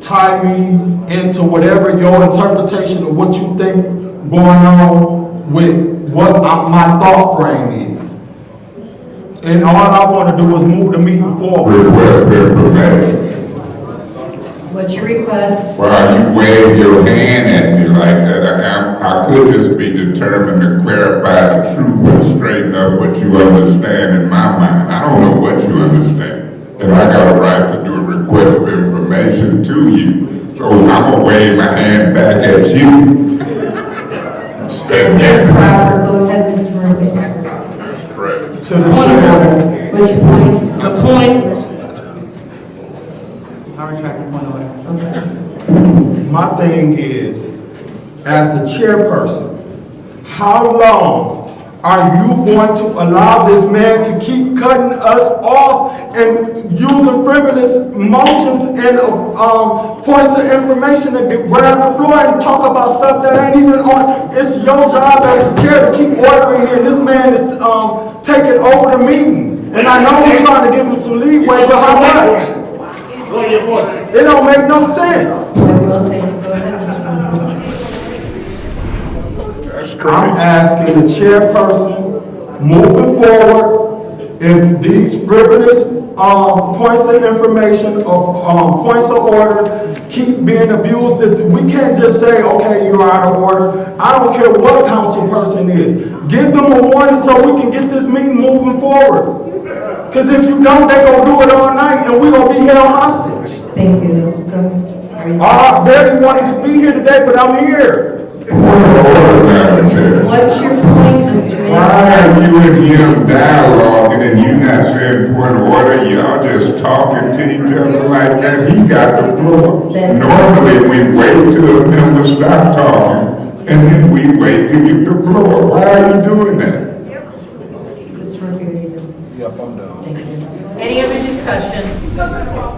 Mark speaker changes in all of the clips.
Speaker 1: tie me into whatever your interpretation of what you think going on with what I- my thought frame is. And all I want to do is move the meeting forward.
Speaker 2: request been permitted.
Speaker 3: What's your request?
Speaker 2: While you wave your hand at me like that, I, I could just be determined to clarify the truth and straighten up what you understand in my mind. I don't know what you understand. And I got a right to do a request for information to you. So I'm gonna wave my hand back at you. Stand
Speaker 3: That's
Speaker 2: there.
Speaker 3: improper, go ahead, Mr. Murphy.
Speaker 2: Correct.
Speaker 1: To the chair,
Speaker 3: What's your point?
Speaker 4: The point. I retract my point of order.
Speaker 3: Okay.
Speaker 1: my thing is, as the chairperson, how long are you going to allow this man to keep cutting us off and using frivolous motions and, um, points of information to get grab the floor and talk about stuff that ain't even on? It's your job as the chair to keep ordering here, and this man is, um, taking over the meeting. And I know we're trying to give him some leeway, but how much?
Speaker 5: Lower your voice.
Speaker 1: It don't make no sense.
Speaker 3: I will take, go ahead, Mr. Murphy.
Speaker 2: That's
Speaker 1: I'm
Speaker 2: correct.
Speaker 1: asking the chairperson, moving forward, if these frivolous, um, points of information, or, um, points of order keep being abused, that we can't just say, okay, you're out of order. I don't care what a council person is. Give them a warning so we can get this meeting moving forward. Cause if you don't, they gonna do it all night, and we gonna be held hostage.
Speaker 3: Thank you. Go- are you-
Speaker 1: I barely wanted to be here today, but I'm here.
Speaker 2: Order, Madam Chair.
Speaker 3: What's your point, Mr.
Speaker 2: Why
Speaker 3: Mayor?
Speaker 2: are you and him dialoguing and you not saying point of order? Y'all just talking to each other like that. He got the floor.
Speaker 3: That's-
Speaker 2: Normally, we wait till a member stop talking and then we wait to get the floor. Why are you doing that?
Speaker 3: Mr. Murphy, are you done?
Speaker 1: Yep, I'm done.
Speaker 3: Thank you. Any other discussion?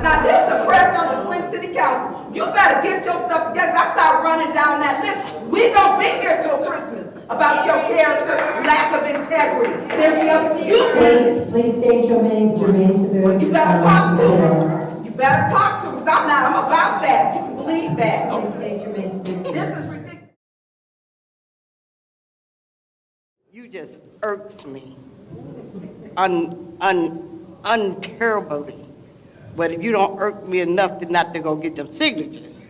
Speaker 6: Now, this the president of the Flint City Council. You better get your stuff together. I start running down that list. We gonna be here till Christmas about your character, lack of integrity, and everything else you
Speaker 3: Please-
Speaker 6: did.
Speaker 3: Please state your name, germane to the.
Speaker 6: You better talk to him. You better talk to him, because I'm not, I'm about that. You can believe that.
Speaker 3: Please state your name to the.
Speaker 6: This is ridiculous.
Speaker 5: You just irks me un, un, unterribly. But if you don't irk me enough to not to go get them signatures,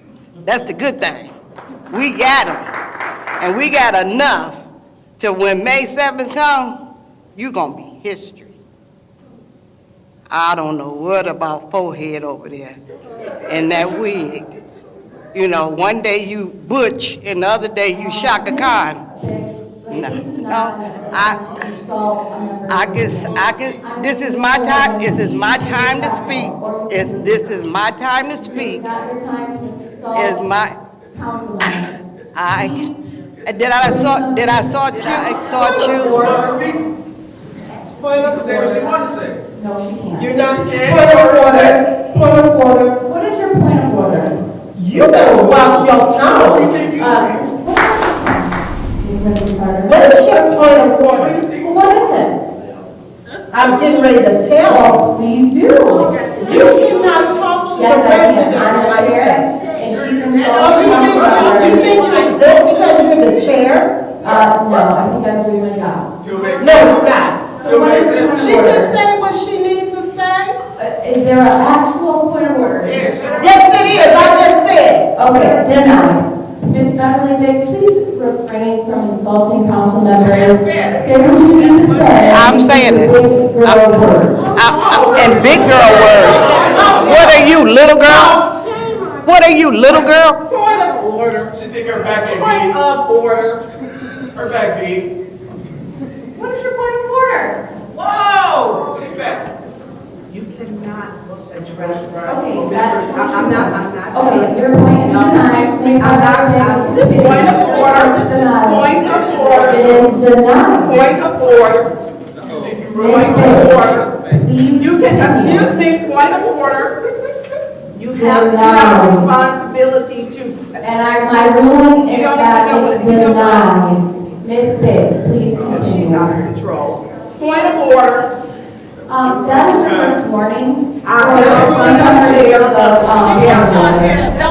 Speaker 5: that's the good thing. We got them. And we got enough till when May 7th come, you gonna be history. I don't know what about forehead over there and that wig. You know, one day you Butch and the other day you Shaka Khan. No, no, I, I guess, I guess, this is my time, this is my time to speak. It's, this is my time to speak.
Speaker 7: not your time to insult
Speaker 5: Is my,
Speaker 7: council members.
Speaker 5: I, did I saw, did I saw, I saw you?
Speaker 7: No, she can't.
Speaker 8: You're not. Point of order, point of order.
Speaker 7: What is your point of order?
Speaker 8: You better watch your tongue. Uh,
Speaker 7: Ms. Wendy Carter?
Speaker 8: What is your point of order?
Speaker 7: Well, What is it?
Speaker 8: I'm getting ready to tell.
Speaker 7: Oh, please do.
Speaker 8: You cannot talk to the
Speaker 7: Yes, I
Speaker 8: president
Speaker 7: can. I'm the
Speaker 8: like
Speaker 7: chair,
Speaker 8: that.
Speaker 7: and she's
Speaker 8: Oh, you
Speaker 7: insulting
Speaker 8: think, you- you
Speaker 7: council members.
Speaker 8: think you exempt because you're the chair?
Speaker 7: Uh, no, I think I'm doing my job.
Speaker 8: No, you're not.
Speaker 7: So what is your point
Speaker 8: She can
Speaker 7: of order?
Speaker 8: say what she needs to say.
Speaker 7: Uh, Is there an actual point of order?
Speaker 8: Yes, it is, I just said.
Speaker 7: Okay, denied. Ms. Beverly Dix, please refrain from insulting council members. Say what you need to say.
Speaker 5: I'm saying it.
Speaker 7: With your words.
Speaker 5: I- I- And big girl word. What are you, little girl? What are you, little girl?
Speaker 8: Point of,
Speaker 9: Order, she think her back
Speaker 8: point
Speaker 9: ain't
Speaker 8: of order.
Speaker 9: beat, her back beat.
Speaker 8: What is your point of order? Whoa!
Speaker 9: Take it back.
Speaker 6: You cannot address.
Speaker 7: Okay, that-
Speaker 6: I- I'm not, I'm not.
Speaker 7: Okay, your point is denied. Ms.
Speaker 6: I'm not- I'm-
Speaker 7: Beverly Dix, it is
Speaker 8: Point of order, this is
Speaker 7: denied.
Speaker 8: point of order.
Speaker 7: It is denied.
Speaker 8: Point of order. Point of order.
Speaker 7: Ms. Dix, please
Speaker 8: You can,
Speaker 7: continue.
Speaker 8: excuse me, point of order.
Speaker 6: You have, you have a responsibility to.
Speaker 7: And I, my ruling is
Speaker 6: You don't
Speaker 7: that
Speaker 6: even know
Speaker 7: it's
Speaker 6: what- you don't know.
Speaker 7: denied. Ms. Biggs, please
Speaker 6: She's
Speaker 7: continue.
Speaker 6: out of control. Point of order.
Speaker 7: Um, that was your first warning.
Speaker 6: I know, we know, Jill.
Speaker 7: Of, um,
Speaker 6: Yeah.